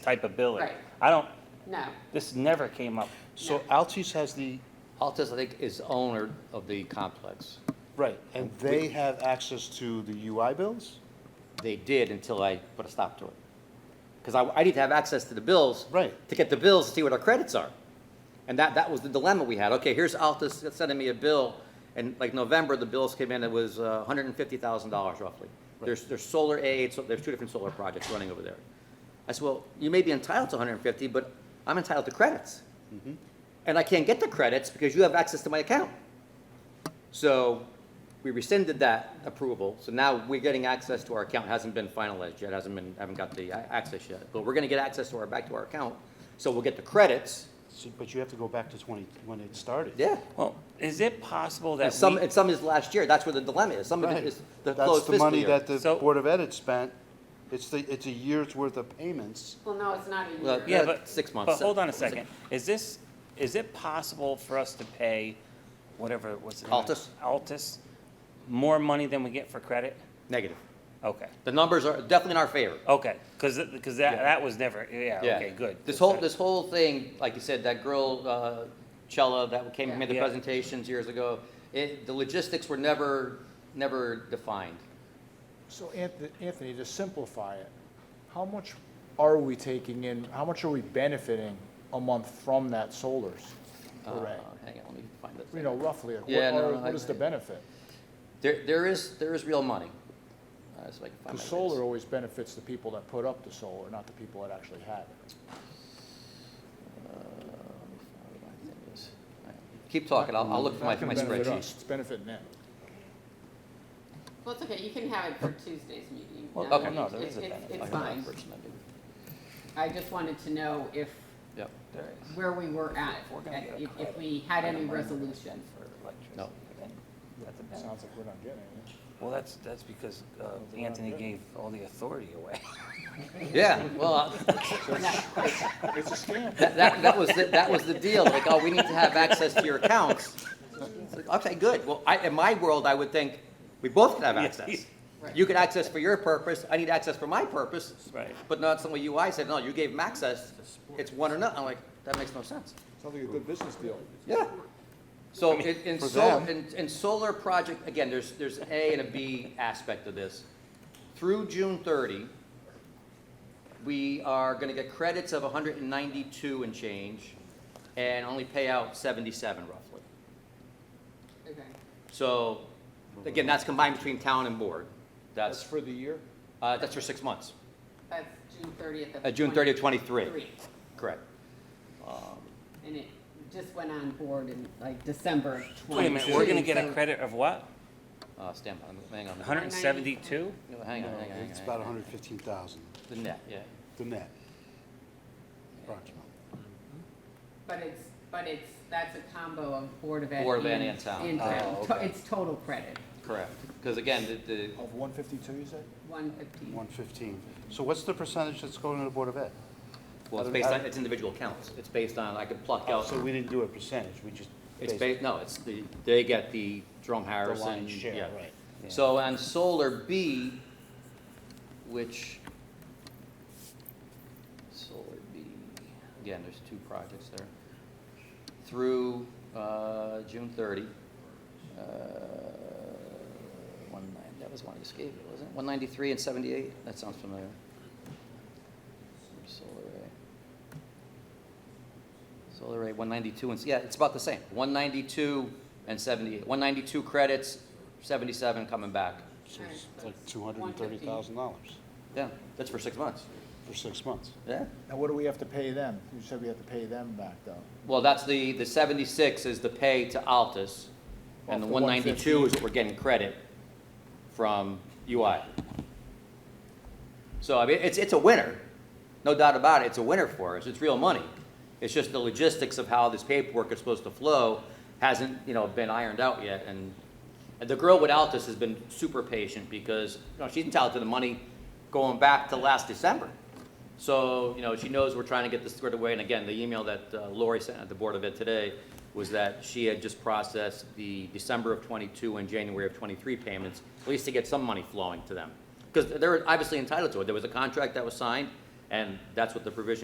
type of billing. Right. I don't, No, this never came up. So Altis has the, Altus, I think, is owner of the complex. right, and they have access to the UI bills? They did until I put a stop to it. Because I, I need to have access to the bills. Right. To get the bills, to see what our credits are. And that, that was the dilemma we had. Okay, here's Altus sending me a bill, and like November, the bills came in, it was uh hundred and fifty thousand dollars roughly. There's, there's solar aid, so there's two different solar projects running over there. I said, well, you may be entitled to hundred and fifty, but I'm entitled to credits. And I can't get the credits because you have access to my account. So we rescinded that approval, so now we're getting access to our account, hasn't been finalized yet, hasn't been, haven't got the uh, access yet, but we're gonna get access to our, back to our account, so we'll get the credits, So- But you have to go back to 20, when it started. yeah. Well, is it possible And that some, we- and some is last year, that's where the dilemma is, some of Right. it is the That's closed the fiscal money year. that the So- Board of Ed had spent. It's the, it's a year's worth of payments. well, no, it's not Well, a year. Yeah, Yeah, but. six months. But hold on a second. Is this, is it possible for us to pay whatever, what's it? Altus? Altus, more money than we get for credit? Negative, Okay, the numbers are definitely in our favor. okay, because, because that, Yeah. that was never, yeah, okay, good. This whole, this whole thing, like you said, that girl, uh, Chella, that came, and made the Yeah. presentations years ago, it, the logistics were never, never defined. So Anth- Anthony, to simplify it, how much are we taking in, how much are we benefiting a month from that solar Uh, array? Hang on, let me find this. You know, roughly, like, Yeah, what no, are- no, I- what is the benefit? There, there is, there is real money. Uh, so I can find Because my solar rates. always benefits the people that put up the solar, not the people that actually have it. Uh, let me find what I think it is. All right. Keep talking, I'll, I'll look for my, It's not my gonna benefit us, spreadsheet. It's benefiting them. Well, it's okay, you can have it for Tuesday's meeting. Well, No, okay. it- No, there it- is a it's- benefit. It's I'll look fine. for it tonight. I just wanted to know if, Yep, where we were at, if, if we had any resolution. no. Sounds like we're not getting it. Well, that's, that's because uh, Anthony gave all the authority away. Yeah, well, It's a scam. that, that, that was, the- that was the deal, like, oh, we need to have access to your accounts. It's like, Okay, good, well, I, in my world, I would think, we both could have access. Right. You could access for your purpose, I need access for my purpose. Right. But not some way UI said, no, you gave them access, it's one or none, I'm like, that makes no sense. Sounds like a good business deal. Yeah. So in, in for solar, them. in, in solar project, again, there's, there's an A and a B aspect of this. Through June thirty, we are gonna get credits of hundred and ninety-two and change, and only pay out seventy-seven roughly. Okay. So, again, that's combined between town and board. That's That's, for the year? uh, that's for six months, That's June thirtieth of. uh, June thirtieth, 23. twenty-three, correct. And it just went on board in like December of twenty-two. Wait a minute, we're gonna get a so- credit of what? Uh, stand by, hang on, hang on, hundred and seventy-two? hang on, hang on. It's about 115,000, The net, yeah. the net. Approximately. But it's, but it's, that's a combo of Board of Ed. Board of Ed and town. And Oh, town. To- okay. It's total credit, Correct, because again, the, the, Of one fifty-two, you said? one fifteen. 115. So what's the percentage that's going to the Board of Ed? Well, it's based on, it's individual counts. It's based on, I could pluck out, So we didn't do a percentage, we just. it's based- based, no, it's the, they get the Jerome Harrison. lion's share, yeah. right. So on solar B, which, solar B, again, there's two projects there. Through, uh, June thirty, uh, one nine, that was one I just gave you, wasn't it? One ninety-three and seventy-eight, that sounds familiar. Solar A. Solar rate, one ninety-two and, yeah, it's about the same, one ninety-two and seventy-eight, one ninety-two credits, seventy-seven coming back. So it's like $230,000 Yeah, that's for six months. for six months. Yeah. Now, what do we have to pay them? You said we have to pay them back, though. Well, that's the, the seventy-six is the pay to Altus, and the Off the one ninety-two is 115. what we're getting credit from UI. So, I mean, it's, it's a winner, no doubt about it, it's a winner for us, it's real money. It's just the logistics of how this paperwork is supposed to flow hasn't, you know, been ironed out yet, and and the girl with Altus has been super patient, because, you know, she's entitled to the money going back to last December. So, you know, she knows we're trying to get this squared away, and again, the email that uh, Lori sent at the Board of Ed today was that she had just processed the December of twenty-two and January of twenty-three payments, at least to get some money flowing to them. Because they're obviously entitled to it, there was a contract that was signed, And that's what the provision